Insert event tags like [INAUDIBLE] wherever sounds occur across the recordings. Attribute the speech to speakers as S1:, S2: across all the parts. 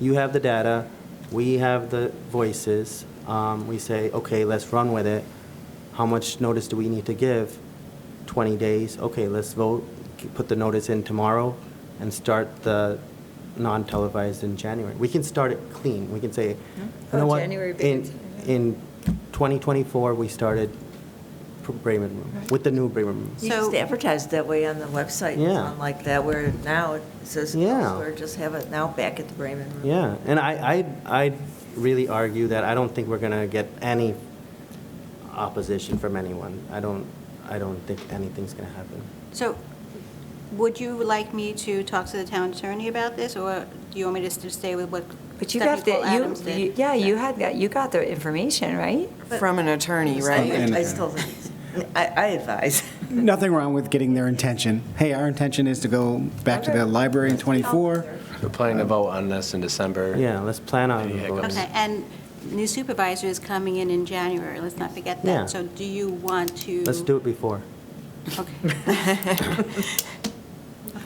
S1: you have the data, we have the voices. Um, We say, okay, let's run with it. How much notice do we need to give? 20 days, okay, let's vote, K- put the notice in tomorrow and start the non-televised in January. We can start it clean. We can say, you
S2: Oh,
S1: know what?
S2: January
S1: In
S2: begins.
S1: in 2024, we started pr- Bremen Room, with the new Bremen Room.
S2: You just advertise that way on the website, and
S1: Yeah.
S2: on like that, where now it says
S1: Yeah.
S2: elsewhere, just have it now back at the Bremen Room.
S1: Yeah, and I, I, I really argue that I don't think we're gonna get any opposition from anyone. I don't, I don't think anything's gonna happen.
S3: So would you like me to talk to the town attorney about this, or do you want me just to stay with what
S4: But you got the,
S3: Stephanie Cole Adams
S4: you- you,
S3: did?
S4: yeah, you had that, you got the information, right?
S5: From an attorney, right?
S2: I still think, it's- I, I advise.
S6: Nothing wrong with getting their intention. Hey, our intention is to go back to the library in '24.
S7: We're planning to vote on this in December.
S1: Yeah, let's plan on
S7: Any
S1: voting.
S7: hiccups?
S3: Okay, and new supervisor is coming in in January, let's not forget
S1: Yeah.
S3: that. So do you want to?
S1: Let's do it before.
S3: Okay. [LAUGHS]
S1: [LAUGHS]
S3: Okay.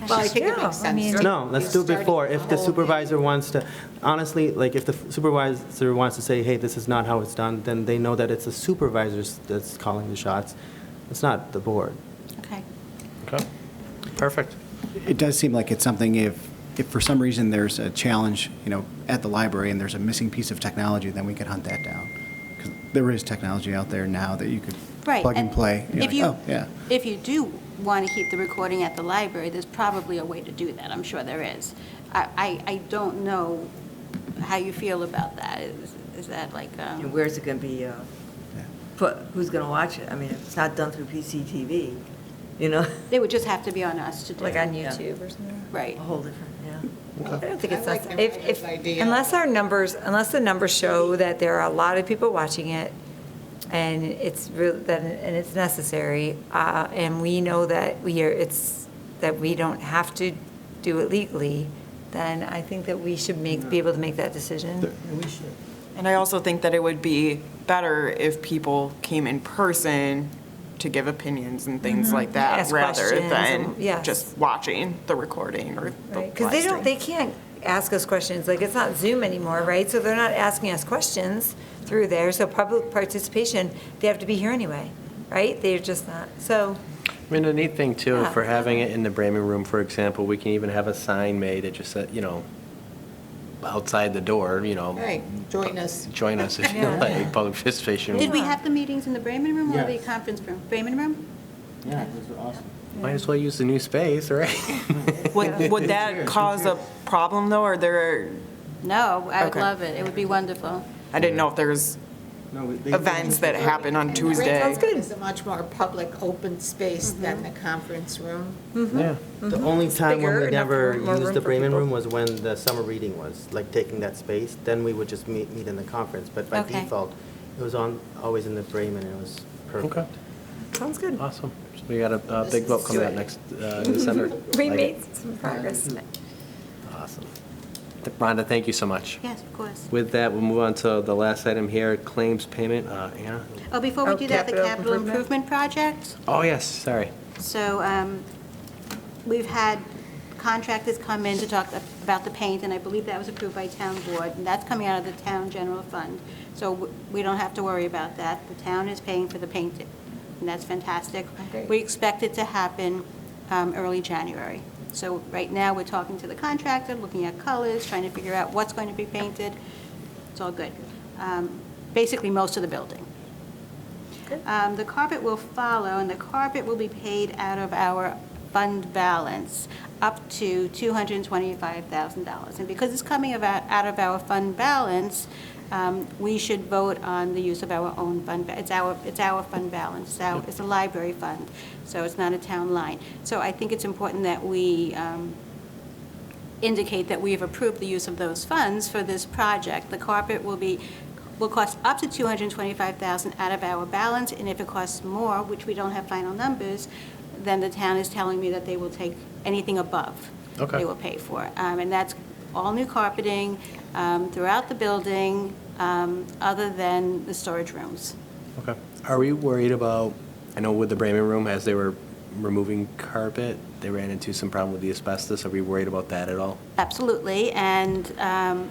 S8: Well, I think it
S4: Yeah, I
S8: makes sense.
S4: mean-
S8: to-
S1: No, let's do it before. If the supervisor wants to, honestly, like, if the supervisor wants to say, hey, this is not how it's done, then they know that it's the supervisors that's calling the shots. It's not the board.
S3: Okay.
S7: Okay, perfect.
S6: It does seem like it's something if, if for some reason there's a challenge, you know, at the library and there's a missing piece of technology, then we could hunt that down. 'Cause There is technology out there now that you could
S3: Right.
S6: plug and
S3: and
S6: play. You're
S3: If
S6: like,
S3: you,
S6: "Oh, yeah."
S3: if you do want to keep the recording at the library, there's probably a way to do that, I'm sure there is. I, I, I don't know how you feel about that, is, is that like,
S2: You know,
S3: um,
S2: Where's it gonna be, uh, put, who's gonna watch it? I mean, if it's not done through PCTV, you know, [LAUGHS]
S3: it would just have to be on us to do.
S2: Like
S3: it.
S2: on you.
S4: YouTube or something.
S2: a
S3: Right.
S2: whole different, yeah. I don't think it's
S8: I like
S2: that,
S8: that.
S4: If, if,
S8: Idea.
S4: unless our numbers, unless the numbers show that there are a lot of people watching it, and it's real, that, and it's necessary, uh, and we know that we are, it's, that we don't have to do it legally, then I think that we should make, be able to make that decision.
S5: And I also think that it would be better if people came in person to give opinions and things like that,
S4: Mm-hmm. Ask
S5: rather
S4: questions
S5: than
S4: and- yes.
S5: just watching the recording or the live
S4: Because they don't,
S5: stream.
S4: they can't ask us questions, like, it's not Zoom anymore, right? So they're not asking us questions through there, so public participation, they have to be here anyway, right? They're just not, so,
S7: I mean, the neat thing too,
S4: Yeah.
S7: for having it in the Bremen Room, for example, we can even have a sign made that just said, you know, outside the door, you know.
S8: Right, join us.
S7: Join us if you like, public participation.
S3: Did we have the meetings in the Bremen Room or the
S1: Yes.
S3: conference room? Bremen Room?
S1: Yeah, it was awesome.
S7: Might as well use the new space, right?
S5: Would, would that cause a problem, though, or there,
S3: No, I would
S5: Okay.
S3: love it. It would be wonderful.
S5: I didn't know if there's events that happen on Tuesday.
S4: Sounds good.
S8: It's a much more public, open space than the conference room.
S7: Yeah.
S1: The only time when
S4: Mm-hmm. bigger,
S1: we
S4: enough
S1: never
S4: room- more
S1: used
S4: room
S1: the
S4: for
S1: Bremen
S4: people.
S1: Room was when the summer reading was, like taking that space, then we would just meet, meet in the conference, but by
S3: Okay.
S1: default, it was on, always in the Bremen, and it was
S7: Okay,
S1: perfect.
S4: sounds good.
S7: awesome. So we got a, a big vote coming out next, uh, December.
S4: We
S7: Like it.
S4: made some progress.
S7: Awesome. Th- Rhonda, thank you so much.
S3: Yes, of course.
S7: With that, we'll move on to the last item here, claims payment. Uh, Anna?
S3: Oh, before we
S4: Oh,
S3: do that, the
S4: capital
S3: capital
S4: improvement?
S3: improvement project.
S7: Oh, yes, sorry.
S3: So um, we've had contractors come in to talk about the paint, and I believe that was approved by town board, and that's coming out of the town general fund. So w- we don't have to worry about that. The town is paying for the paint, and that's fantastic. We expect it to happen um, early January. So right now, we're talking to the contractor, looking at colors, trying to figure out what's going to be painted. It's all good. Um, Basically, most of the building. Um, The carpet will follow, and the carpet will be paid out of our fund balance up to $225,000. And because it's coming about out of our fund balance, um, we should vote on the use of our own fund, ba- it's our, it's our fund balance, it's our- it's a library fund, so it's not a town line. So I think it's important that we um, indicate that we have approved the use of those funds for this project. The carpet will be, will cost up to 225000 out of our balance, and if it costs more, which we don't have final numbers, then the town is telling me that they will take anything above.
S7: Okay.
S3: They will pay for. Um, And that's all new carpeting um, throughout the building, um, other than the storage rooms.
S7: Okay. Are we worried about, I know with the Bremen Room, as they were removing carpet, they ran into some problem with the asbestos. Are we worried about that at all?
S3: Absolutely, and um,